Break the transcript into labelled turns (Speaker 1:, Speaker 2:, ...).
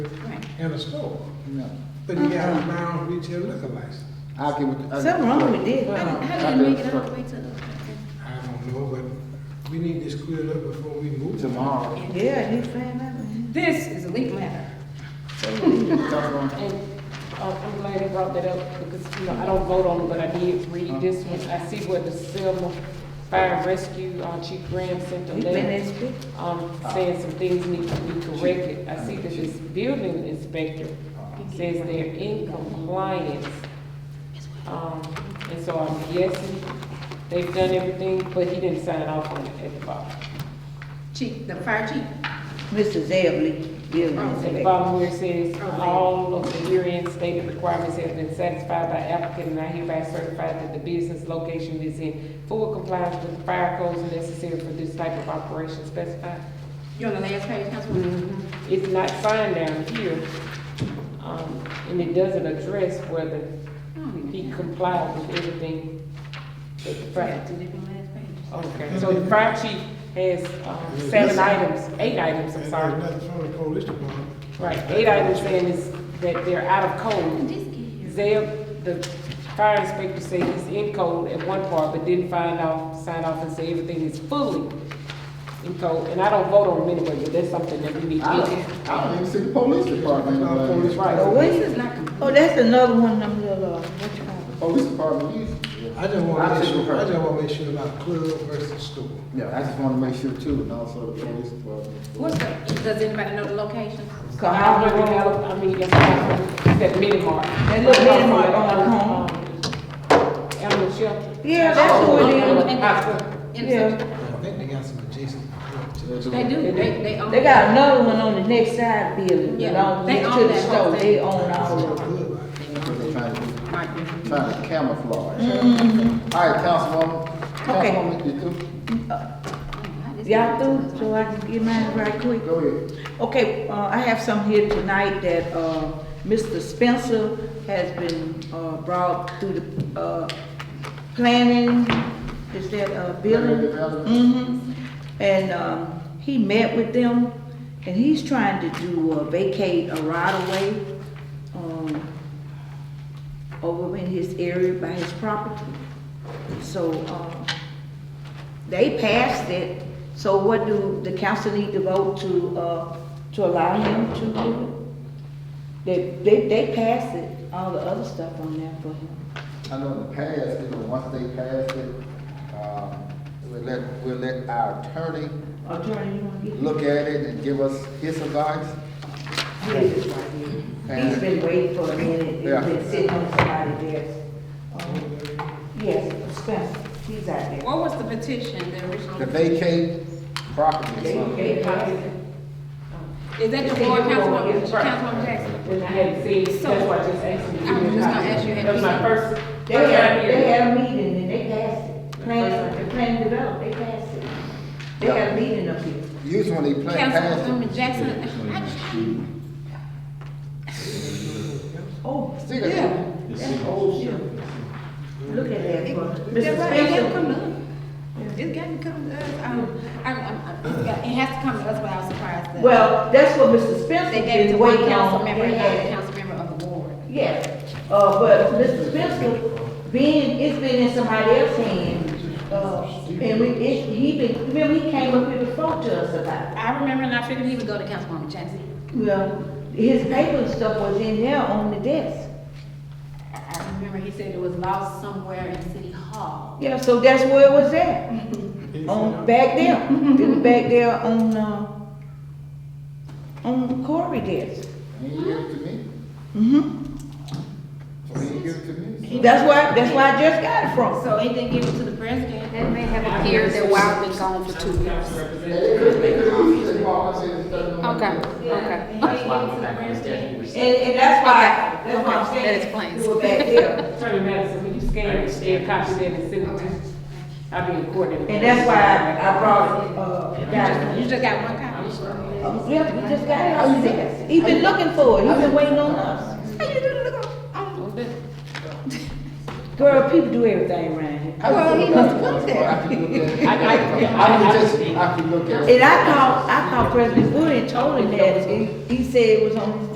Speaker 1: and a store,
Speaker 2: No.
Speaker 1: but you got a mild retail liquor license.
Speaker 2: I'll get with. I'll-
Speaker 3: Something wrong with this.
Speaker 4: How did- how
Speaker 2: I
Speaker 4: did they
Speaker 2: did
Speaker 4: make it all the
Speaker 2: for-
Speaker 4: way to the?
Speaker 1: I don't know, but we need this cleared up before we move.
Speaker 2: Tomorrow.
Speaker 3: Yeah, you saying that, man.
Speaker 4: This is a legal matter.
Speaker 5: And uh, I'm glad you brought that up, because, you know, I don't vote on it, but I did read this one. I see where the Selma Fire and Rescue uh, Chief Graham sent a
Speaker 3: You been
Speaker 5: letter,
Speaker 3: inspected?
Speaker 5: um, saying some things need to be corrected. I see that this building inspector says they're in compliance. Um, and so I'm guessing they've done everything, but he didn't sign off on it at the bottom.
Speaker 4: Chief, the fire chief?
Speaker 3: Mr. Zebley, building
Speaker 5: At the
Speaker 3: inspector.
Speaker 5: bottom where it says, all of the herein stated requirements have been satisfied by applicant, and I hereby certify that the business location is in full compliance with the fire codes necessary for this type of operation specified.
Speaker 4: You on the last page, Councilwoman?
Speaker 5: It's not signed down here, um, and it doesn't address whether he complied with everything that the
Speaker 4: Right.
Speaker 5: fire.
Speaker 4: To different last page.
Speaker 5: Okay, so the fire chief has, um, seven items, eight items, I'm
Speaker 1: And
Speaker 5: sorry.
Speaker 1: there's nothing from the police department.
Speaker 5: Right, eight items saying is that they're out of code.
Speaker 4: This kid.
Speaker 5: Zeb, the fire inspector said he's in code at one part, but didn't find out, sign off and say everything is fully in code. And I don't vote on them anyway, but that's something that we need to
Speaker 2: I
Speaker 5: look
Speaker 2: don't, I don't
Speaker 5: at.
Speaker 2: even see the police department.
Speaker 1: Our police
Speaker 2: anywhere.
Speaker 3: Oh,
Speaker 5: Right,
Speaker 3: wait.
Speaker 4: This is not complete.
Speaker 3: Oh, that's another one of them little, uh, what you call it?
Speaker 2: Police department is.
Speaker 1: I just wanna
Speaker 2: I
Speaker 1: make
Speaker 2: think
Speaker 1: sure, I
Speaker 2: we're-
Speaker 1: just wanna make sure about club versus store.
Speaker 2: Yeah, I just wanna make sure too, and also the police department.
Speaker 4: What's the, does anybody know the location?
Speaker 3: Oh,
Speaker 5: I don't really know, I mean, that's not, that mini mart.
Speaker 3: That little mini mart on the home.
Speaker 5: Animal shelter.
Speaker 3: Yeah, that's who it is.
Speaker 4: In the
Speaker 3: Yeah.
Speaker 1: I think they got some adjacent clubs.
Speaker 4: They do, they, they own.
Speaker 3: They got another one on the next side building,
Speaker 4: Yeah,
Speaker 3: along
Speaker 4: they
Speaker 3: next
Speaker 4: own
Speaker 3: to the
Speaker 4: that whole
Speaker 3: store,
Speaker 4: thing.
Speaker 3: they own all of it.
Speaker 1: Club.
Speaker 2: What they trying to do?
Speaker 4: Right there.
Speaker 2: Trying to camouflage. All right, Councilwoman,
Speaker 3: Mm-hmm. Okay.
Speaker 2: Councilwoman, you do,
Speaker 3: Y'all through, so I can get mine right quick?
Speaker 2: go ahead.
Speaker 3: Okay, uh, I have some here tonight that, uh, Mr. Spencer has been, uh, brought through the, uh, planning, is that, uh, building?
Speaker 2: Planning development.
Speaker 3: hmm And, um, he met with them, and he's trying to do, uh, vacate a right of way, um, over in his area by his property. So, um, they passed it, so what do the council need to vote to, uh, to allow him to do it? They, they, they passed it, all the other stuff on there for him.
Speaker 2: I know in the past, you know, once they passed it, um, we'll let, we'll let our attorney
Speaker 3: Attorney, you wanna get?
Speaker 2: look at it and give us his advice.
Speaker 3: Yes, it's right here. He's been waiting for a minute,
Speaker 2: Yeah.
Speaker 3: it's been sitting on somebody's desk. Um, Yes, Spencer, he's out there.
Speaker 4: What was the petition, the original?
Speaker 2: To vacate property.
Speaker 3: They, they passed it.
Speaker 4: Is that the
Speaker 5: They
Speaker 4: board,
Speaker 5: said you were
Speaker 4: Councilwoman,
Speaker 5: gonna get- right.
Speaker 4: Councilwoman Jackson?
Speaker 5: And I had seen, that's why I just asked you. to
Speaker 4: I was
Speaker 5: give me a
Speaker 4: just gonna
Speaker 5: copy.
Speaker 4: ask you, had
Speaker 5: That was
Speaker 4: you
Speaker 5: my
Speaker 4: seen-
Speaker 5: first.
Speaker 3: They
Speaker 5: first
Speaker 3: had,
Speaker 5: time
Speaker 3: they
Speaker 5: here.
Speaker 3: had a meeting and they passed it, planning, the planning development, they passed it. They had a meeting up here.
Speaker 2: Usually when they plan past it,
Speaker 4: Councilwoman Jackson, I-
Speaker 3: Oh,
Speaker 2: Stick it.
Speaker 3: yeah, that's old shit. Look at that, bro.
Speaker 4: That's
Speaker 3: Mr.
Speaker 4: right, it gotta
Speaker 3: Spencer,
Speaker 4: come up. It's gotta come to us. Um, I'm, I'm, I'm, it's got- it has to come to us, but I was surprised that.
Speaker 3: well, that's what Mr.
Speaker 4: They
Speaker 3: Spencer
Speaker 4: gave it to
Speaker 3: been
Speaker 4: one
Speaker 3: waiting
Speaker 4: council
Speaker 3: on.
Speaker 4: member,
Speaker 3: They
Speaker 4: and not a
Speaker 3: had-
Speaker 4: council member of the board.
Speaker 3: Yes, uh, but Mr. Spencer, being, it's been in somebody else's hand, uh, and we, it, he been, remember he came up here before to us about it.
Speaker 4: I remember and I figured he would go to Councilwoman Jackson.
Speaker 3: Well, his paper and stuff was in there on the desk.
Speaker 4: I, I remember he said it was lost somewhere in City Hall.
Speaker 3: Yeah, so that's where it was at, on, back there, it was back there on, uh, on Corey desk.
Speaker 2: and you give it to me,
Speaker 3: Mm-hmm,
Speaker 2: so when you give it to me.
Speaker 3: that's where, that's where I just got it from.
Speaker 4: So he didn't give it to the president. That may have
Speaker 5: appeared that
Speaker 4: Wild been gone for two
Speaker 5: Council representative.
Speaker 4: okay.
Speaker 6: That's why we're not gonna definitely
Speaker 3: And, and that's why, that's why I'm
Speaker 4: Okay, that
Speaker 3: saying.
Speaker 4: explains.
Speaker 3: It was back there,
Speaker 5: Attorney Madison, will you scan it, and copy that and send it to, me? I'll be in court. in-
Speaker 3: and that's why I, I brought it, uh, down.
Speaker 4: You just got one copy?
Speaker 3: Yeah, we just got it
Speaker 4: Oh,
Speaker 3: on the desk. He been looking for it, he been waiting on us.
Speaker 4: How you doing, look on- on-
Speaker 3: Girl, people do everything around here.
Speaker 4: Well, he must have put there.
Speaker 2: I can look at it.
Speaker 5: I- I-
Speaker 2: I can just, I can look at it.
Speaker 3: And I called, I called President Wood and told him that, and he said it was on his